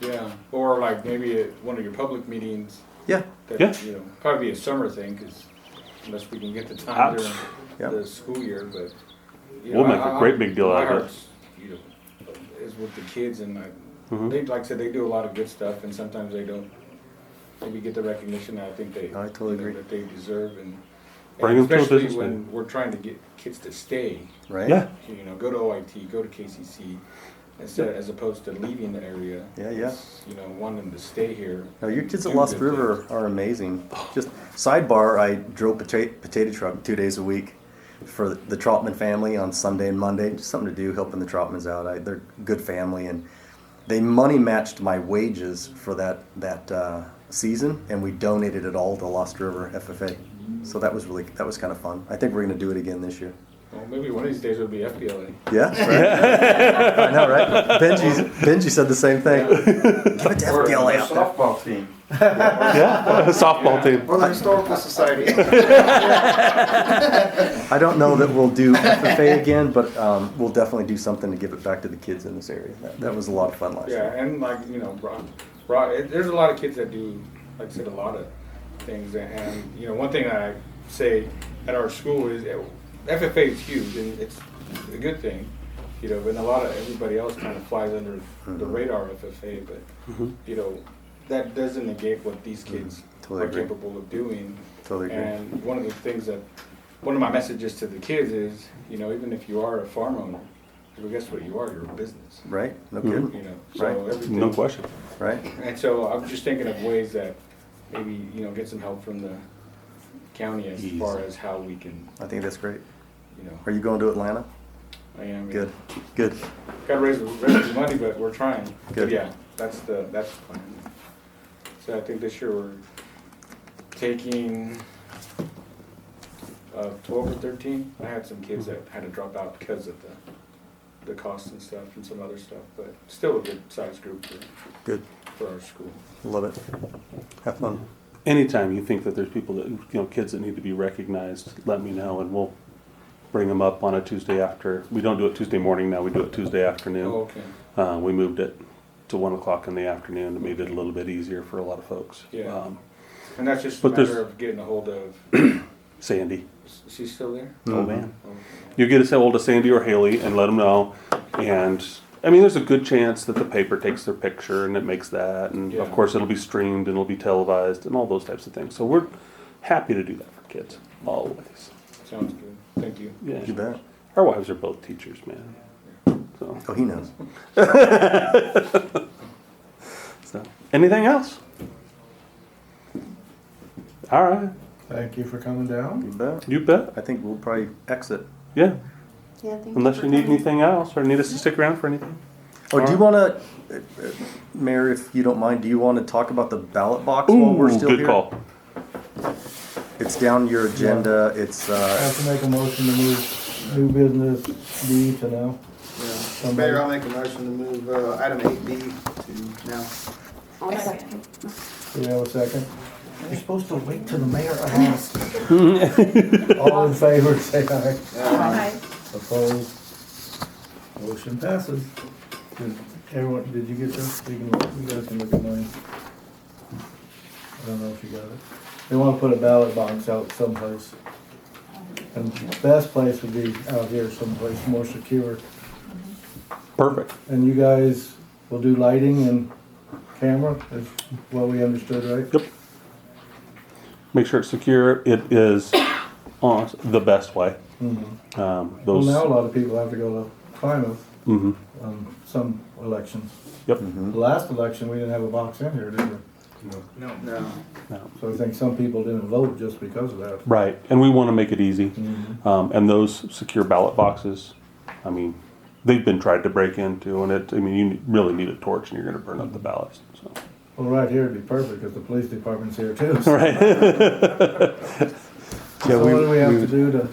Yeah, or like maybe at one of your public meetings. Yeah. That, Yeah. You know, probably be a summer thing, 'cause unless we can get the time Abs- during Yeah. the school year, but. you We'll know, make a I- I- great big deal my out of it. heart's, you know, Is with the kids and like, Mhm. they, like I said, they do a lot of good stuff and sometimes they don't maybe get the recognition I think they. I totally you know, agree. That they deserve and. Bring and 'em to a especially business when We're trying to get kids to stay right? Yeah, you know, go to OIT, go to KCC, instead as opposed to leaving the area. Yeah, yeah. It's, You know, wanting to stay here. No, your kids at do Lost good River things. are amazing. Just sidebar, I drove potato, potato truck two days a week for the Trotman family on Sunday and Monday. Just something to do, helping the Trotmans out. I, they're good family, and they money matched my wages for that that uh, season, and we donated it all to Lost River FFA. So that was really that was kind of fun. I think we're gonna do it again this year. Well, maybe one of these days it'll be FBLA. Yeah, right? I know, right? Benji's, Benji said the same thing. Give it to Or FDLA the out there. softball team, yeah, softball team. or the historical society. I don't know that we'll do FFA again, but um, we'll definitely do something to give it back to the kids in this area. That, that was a lot of fun last Yeah, year. and like, you know, Brock, Brock, it- there's a lot of kids that do, like I said, a lot of things. And, and, you know, one thing I say at our school is eh, FFA is huge and it's a good thing, you know, but a lot of everybody else kind of flies under Mm-hmm. the radar of FFA, but, you know, that doesn't negate what these kids Mm-hmm. Totally are agree. capable of doing. Totally agree. And one of the things that, one of my messages to the kids is, you know, even if you are a farm owner, well, guess what you are? You're a business Right? No you kidding? know, so Right. everything. No question. Right? And so I'm just thinking of ways that maybe, you know, get some help from the county as Easy. far as how we can, I think that's great. you know, Are you going to Atlanta? I am. Good. Good. Gotta raise, the- raise the money, but we're trying. But Good. Yeah, that's the, that's the plan. So I think this year we're taking, uh, twelve or thirteen. I had some kids that had to drop out because of the, the cost and stuff and some other stuff, but still a good sized group for, Good. for our school. Love it. Have fun. Anytime you think that there's people that, you know, kids that need to be recognized, let me know and we'll bring them up on a Tuesday after. We don't do it Tuesday morning now, we do it Tuesday Oh, afternoon. okay. Uh, we moved it to one o'clock in the afternoon to make it a little bit easier for a lot of folks. Yeah. Um, And that's just a But there's- matter of getting a hold of. Sandy, Is she still there? Mm-hmm. Oh, old man. Okay. you get a hold of Sandy or Haley and let them know. And I mean, there's a good chance that the paper takes their picture and it makes that. And Yeah. of course, it'll be streamed and it'll be televised and all those types of things. So we're happy to do that for kids always. Sounds good. Thank you. Yeah, You bet. our wives are both teachers, man. So, Oh, he knows. so. anything else? All right, Thank you for coming down. You bet. you bet. I think we'll probably exit. Yeah, Yeah, thank unless for you need coming. anything else or need us to stick around for anything. Oh, do you want to, Mayor, if you don't mind, do you want to talk about the ballot box while we're still good here? call. It's down your agenda. It's I uh, have to make a motion to move new business B to now. Mayor, I'll make a motion to move uh, item eight B to now. I'll second. Do we have a second? You're supposed to wait till the mayor asks. All in favor, say aye. Uh, Aye. Opposed? Motion passes. Did Everyone, did you get this? You can, look- you guys can look at mine. I don't know if you got it. They wanna put a ballot box out someplace. And best place would be out here someplace, more secure. Perfect. And you guys will do lighting and camera, is what we understood, right? Yep. Make sure it's secure. It is on the best way. Um, Mm-hmm. Well, those. now a lot of people have to go to Plymouth Mhm. on some elections. Yep. The last election, we didn't have a box in here, did we? No. No. So I think some people didn't vote just because of that. Mm-hmm. Right, and we want to make it easy. Um, and those secure ballot boxes, I mean, they've been tried to break into, and it. I mean, you really need a torch, and you're going to burn up the ballots. So. Well, right here would be perfect because the police department's here too. So Right. so what do we have to do to,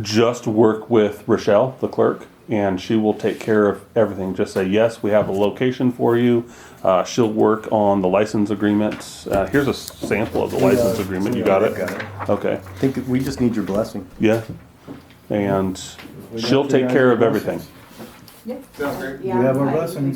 just work with Rochelle, the clerk, and she will take care of everything. Just say, yes, we have a location for you. Uh, she'll work on the license agreements. Uh, here's a sample of the license it. agreement. You uh, We got got it? got it. Okay, I think we just need your blessing. yeah. And We got she'll you take guys care the of everything. license. Sounds great. we have our Yeah. blessing?